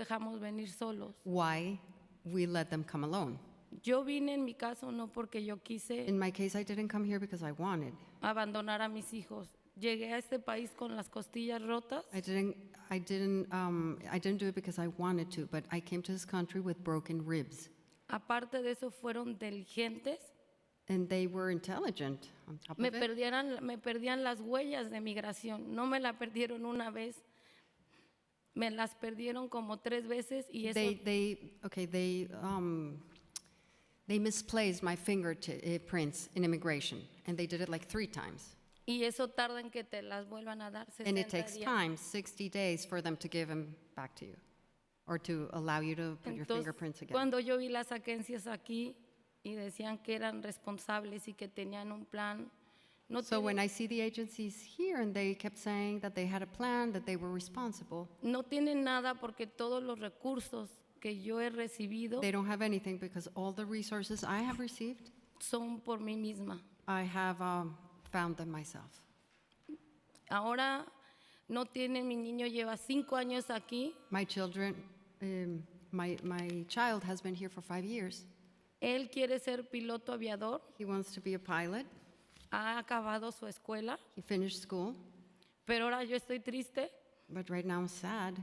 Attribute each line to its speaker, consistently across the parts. Speaker 1: dejamos venir solos.
Speaker 2: why we let them come alone.
Speaker 1: Yo vine en mi caso no porque yo quise
Speaker 2: In my case, I didn't come here because I wanted.
Speaker 1: abandonar a mis hijos. Llegué a este país con las costillas rotas
Speaker 2: I didn't. I didn't. Um, I didn't do it because I wanted to. But I came to this country with broken ribs,
Speaker 1: Aparte de eso, fueron diligentes.
Speaker 2: and they were intelligent. On top
Speaker 1: Me
Speaker 2: of it,
Speaker 1: perdieran, me perdían las huellas de migración. No me la perdieron una vez. Me las perdieron como tres veces y eso
Speaker 2: they. They. Okay. They. Um, they misplaced my fingerprints in immigration, and they did it like three times.
Speaker 1: y eso tarda en que te las vuelvan a dar. 60
Speaker 2: And it takes
Speaker 1: días.
Speaker 2: time, 60 days, for them to give them back to you, or to allow you to put your
Speaker 1: Entonces,
Speaker 2: fingerprints again.
Speaker 1: cuando yo vi las agencias aquí y decían que eran responsables y que tenían un plan, no,
Speaker 2: So
Speaker 1: tienen-
Speaker 2: when I see the agencies here and they kept saying that they had a plan, that they were responsible,
Speaker 1: no tienen nada porque todos los recursos que yo he recibido
Speaker 2: they don't have anything because all the resources I have received,
Speaker 1: son por mí misma.
Speaker 2: I have um, found them myself.
Speaker 1: Ahora no tienen, mi niño lleva cinco años aquí,
Speaker 2: My children, um, my, my child has been here for five years.
Speaker 1: él quiere ser piloto aviador,
Speaker 2: He wants to be a pilot.
Speaker 1: ha acabado su escuela,
Speaker 2: He finished school,
Speaker 1: pero ahora yo estoy triste
Speaker 2: but right now I'm sad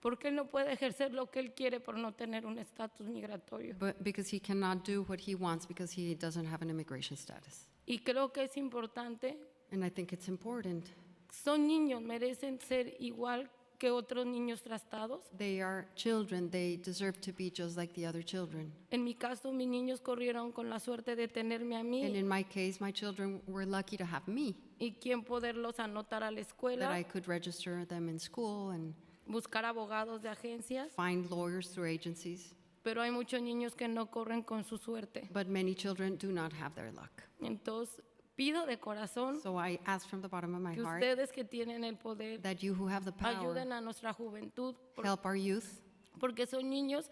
Speaker 1: porque él no puede ejercer lo que él quiere por no tener un estatus migratorio.
Speaker 2: but because he cannot do what he wants because he doesn't have an immigration status.
Speaker 1: Y creo que es importante
Speaker 2: And I think it's important.
Speaker 1: son niños, merecen ser igual que otros niños tratados.
Speaker 2: They are children, they deserve to be just like the other children.
Speaker 1: En mi caso, mis niños corrieron con la suerte de tenerme a
Speaker 2: And
Speaker 1: mí
Speaker 2: in my case, my children were lucky to have me,
Speaker 1: y quien poderlos anotar a la
Speaker 2: that I
Speaker 1: escuela,
Speaker 2: could register them in school and
Speaker 1: buscar abogados de agencias,
Speaker 2: find lawyers through agencies.
Speaker 1: pero hay muchos niños que no corren con su suerte.
Speaker 2: But many children do not have their luck.
Speaker 1: Entonces, pido de corazón
Speaker 2: So I ask from the bottom of my
Speaker 1: Mm-hmm. que
Speaker 2: heart
Speaker 1: ustedes que tienen el poder
Speaker 2: that you who have the power
Speaker 1: ayuden a nuestra juventud, por-
Speaker 2: help our youth,
Speaker 1: porque son niños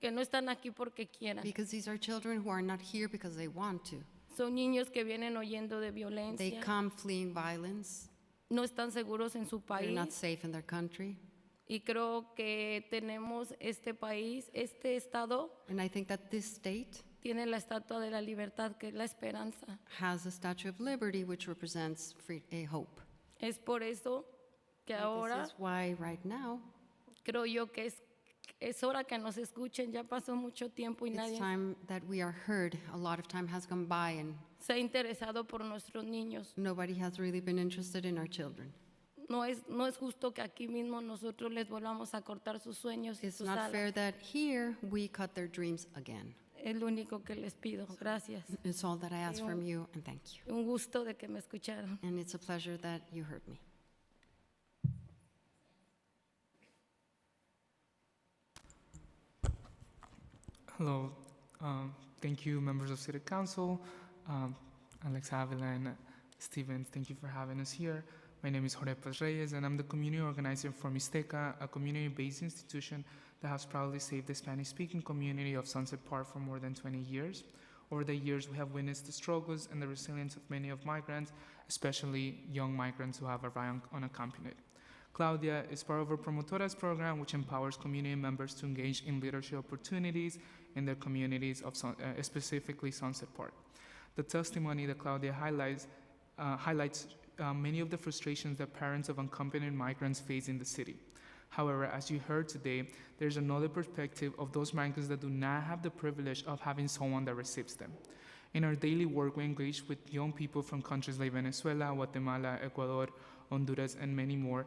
Speaker 1: que no están aquí porque quieran.
Speaker 2: because these are children who are not here because they want to.
Speaker 1: Son niños que vienen oyendo de
Speaker 2: They
Speaker 1: violencia,
Speaker 2: come fleeing violence,
Speaker 1: no están seguros en su
Speaker 2: they're
Speaker 1: país.
Speaker 2: not safe in their country.
Speaker 1: Y creo que tenemos este país, este estado
Speaker 2: And I think that this state
Speaker 1: tiene la estatua de la libertad, que es la esperanza.
Speaker 2: has a Statue of Liberty which represents free, a hope.
Speaker 1: Es por eso que
Speaker 2: And
Speaker 1: ahora
Speaker 2: this is why right now
Speaker 1: creo yo que es, es hora que nos escuchen. Ya pasó mucho tiempo y
Speaker 2: It's
Speaker 1: nadie
Speaker 2: time that we are heard. A lot of time has gone by and
Speaker 1: se ha interesado por nuestros niños.
Speaker 2: nobody has really been interested in our children.
Speaker 1: No es, no es justo que aquí mismo nosotros les volvamos a cortar sus sueños y
Speaker 2: It's
Speaker 1: sus
Speaker 2: not
Speaker 1: alas.
Speaker 2: fair that here we cut their dreams again.
Speaker 1: Es lo único que les pido. Gracias.
Speaker 2: It's all that I ask from you and thank you.
Speaker 1: Un gusto de que me escucharon.
Speaker 2: And it's a pleasure that you heard me.
Speaker 3: Hello, um, thank you, members of City Council, um, Alex Avila and Stevens, thank you for having us here. My name is Jorge Paz Reyes, and I'm the community organizer for Mixteca, a community-based institution that has proudly saved the Spanish-speaking community of Sunset Park for more than 20 years. Over the years, we have witnessed the struggles and the resilience of many of migrants, especially young migrants who have arrived unaccompanied. Claudia is part of our Promotoras program, which empowers community members to engage in leadership opportunities in their communities of Sun- uh, specifically Sunset Park. The testimony that Claudia highlights uh, highlights uh, many of the frustrations that parents of unaccompanied migrants face in the city. However, as you heard today, there's another perspective of those migrants that do not have the privilege of having someone that receives them. In our daily work, we engage with young people from countries like Venezuela, Guatemala, Ecuador, Honduras, and many more.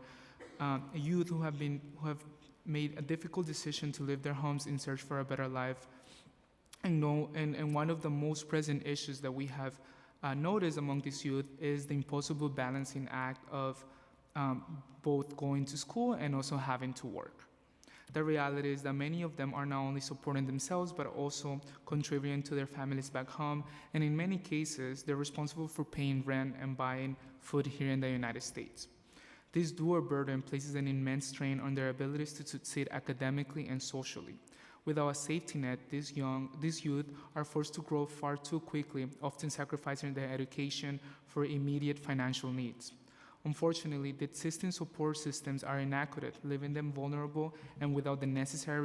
Speaker 3: Uh, youth who have been who have made a difficult decision to leave their homes in search for a better life. And no, and, and one of the most present issues that we have uh, noticed among these youth is the impossible balancing act of um, both going to school and also having to work. The reality is that many of them are not only supporting themselves but also contributing to their families back home, and in many cases, they're responsible for paying rent and buying food here in the United States. This dual burden places an immense strain on their abilities to succeed academically and socially. Without a safety net, these young, these youth are forced to grow far too quickly, often sacrificing their education for immediate financial needs. Unfortunately, the existing support systems are inadequate, leaving them vulnerable and without the necessary